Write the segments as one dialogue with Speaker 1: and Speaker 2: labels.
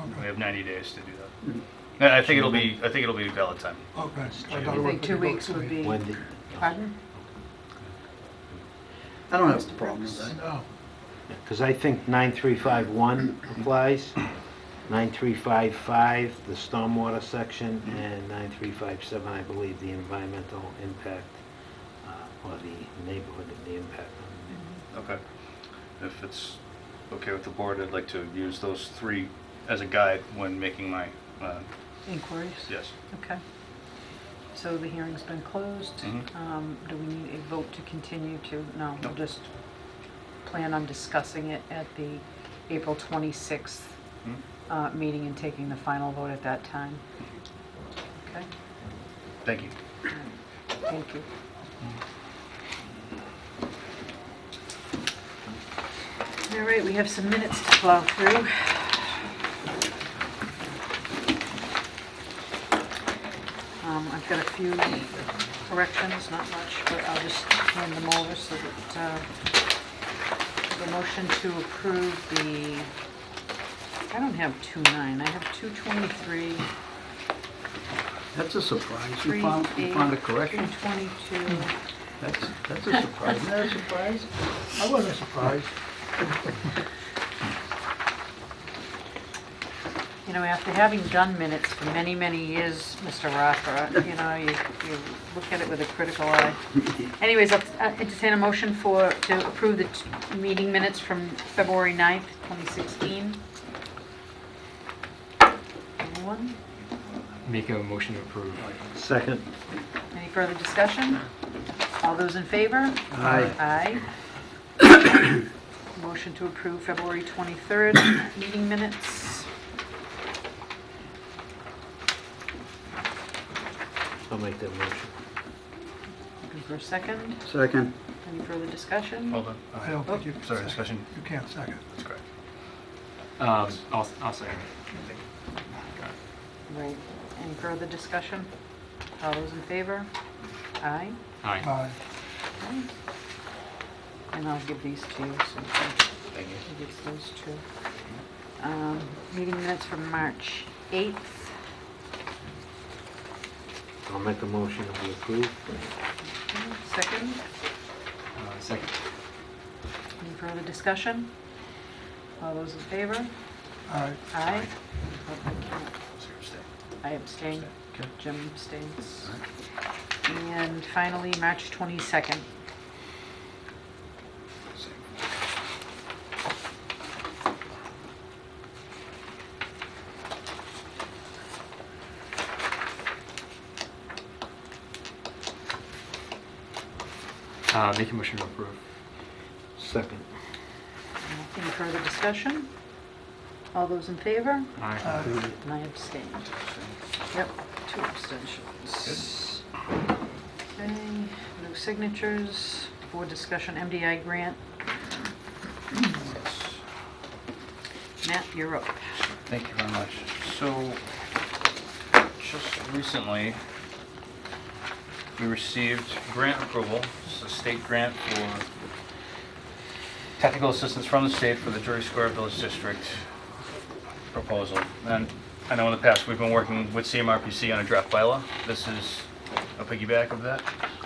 Speaker 1: Okay.
Speaker 2: We have 90 days to do
Speaker 1: Mhm.
Speaker 2: that. I I think it'll be, I think it'll be valid time.
Speaker 1: Okay. I thought
Speaker 3: Do
Speaker 1: it
Speaker 3: you
Speaker 1: was
Speaker 3: think
Speaker 1: pretty
Speaker 3: two
Speaker 1: good.
Speaker 3: weeks would be,
Speaker 4: When the,
Speaker 3: pardon?
Speaker 1: I don't have a problem with that. No.
Speaker 4: because I think 9351 applies, 9355, the stormwater section, and 9357, I believe, the environmental impact, uh, or the neighborhood of the impact.
Speaker 2: Okay. If it's okay with the board, I'd like to use those three as a guide when making my, uh,
Speaker 3: Inquiries?
Speaker 2: yes.
Speaker 3: Okay. So the hearing's been closed.
Speaker 4: Mm-hmm.
Speaker 2: Mhm.
Speaker 3: Um, Do we need a vote to continue to, no, we'll
Speaker 2: No.
Speaker 3: just plan on discussing it at the April 26th
Speaker 2: Mhm.
Speaker 3: uh, meeting and taking the final vote at that time. Okay,
Speaker 2: Thank you.
Speaker 3: thank you. All right, we have some minutes to plow through. Um, I've got a few corrections, not much, but I'll just hand them over so that, uh, the motion to approve the, I don't have two nine, I have two twenty-three,
Speaker 1: That's a surprise.
Speaker 3: three
Speaker 1: You found, you
Speaker 3: eight,
Speaker 1: found a correction.
Speaker 3: two twenty-two.
Speaker 1: That's, that's a surprise. Isn't that a surprise? I wasn't surprised.
Speaker 3: You know, after having done minutes for many, many years, Mr. Rothra, you know, you, you look at it with a critical eye. Anyways, I'll I'll entertain a motion for, to approve the t- meeting minutes from February 9th, 2016. Anyone?
Speaker 5: Make a motion to approve.
Speaker 4: Second.
Speaker 3: Any further discussion? All those in favor?
Speaker 1: Aye.
Speaker 3: Aye. Motion to approve February 23rd meeting minutes.
Speaker 4: I'll make that motion.
Speaker 3: Looking for a second.
Speaker 1: Second.
Speaker 3: Any further discussion?
Speaker 2: Hold on.
Speaker 1: I don't think you.
Speaker 2: Sorry, discussion.
Speaker 1: You can't second.
Speaker 2: That's correct.
Speaker 5: Um, I'll, I'll second.
Speaker 3: Right. Any further discussion? All those in favor? Aye.
Speaker 5: Aye.
Speaker 1: Aye.
Speaker 3: And I'll give these to you, so you
Speaker 2: Thank you.
Speaker 3: can give those to. Um, Meeting minutes from March 8th.
Speaker 4: I'll make a motion that we approve.
Speaker 3: Second,
Speaker 5: Uh, Second.
Speaker 3: any further discussion? All those in favor?
Speaker 1: Aye.
Speaker 3: Aye. Oh, I can't.
Speaker 2: So you're staying.
Speaker 3: I abstain. Jim abstains. And finally, March 22nd.
Speaker 2: Same.
Speaker 5: Uh, Make a motion to approve.
Speaker 4: Second.
Speaker 3: Any further discussion? All those in favor?
Speaker 5: Aye.
Speaker 1: Aye.
Speaker 3: And I abstained. Yep, two abstentions. Okay, no signatures. Board discussion, MDI grant. Matt, you're up.
Speaker 2: Thank you very much. So, just recently, we received grant approval, it's a state grant for technical assistance from the state for the Drury Square Village District proposal. And I know in the past, we've been working with CMRPC on a draft bylaw. This is a piggyback of that.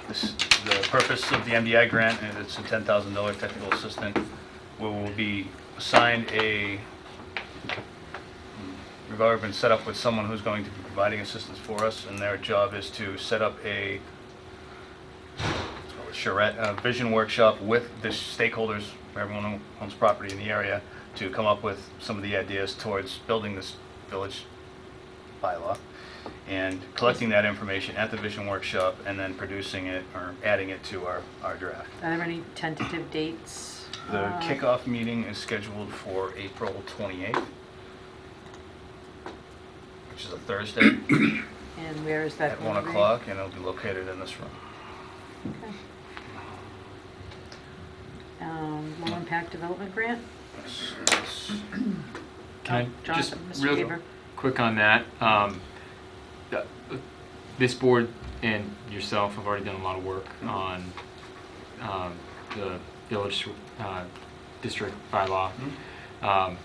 Speaker 2: This, the purpose of the MDI grant, and it's a $10,000 technical assistant, where we'll be assigned a We've already been set up with someone who's going to be providing assistance for us, and their job is to set up a charrette, a vision workshop with the stakeholders, everyone who owns property in the area, to come up with some of the ideas towards building this village bylaw, and collecting that information at the vision workshop, and then producing it, or adding it to our, our draft.
Speaker 3: Are there any tentative dates?
Speaker 2: The
Speaker 3: Uh,
Speaker 2: kickoff meeting is scheduled for April 28th, which is a Thursday.
Speaker 3: And where is that?
Speaker 2: at 1
Speaker 3: gonna be?
Speaker 2: o'clock, and it'll be located in this room.
Speaker 3: Okay. Um, Low impact development grant?
Speaker 2: It's- it's-
Speaker 5: Can I just,
Speaker 3: Jonathan, Mr.
Speaker 5: real
Speaker 3: Haber.
Speaker 5: quick on that, um, th- this board and yourself have already done a lot of work on, um, the village, uh, district bylaw. Um,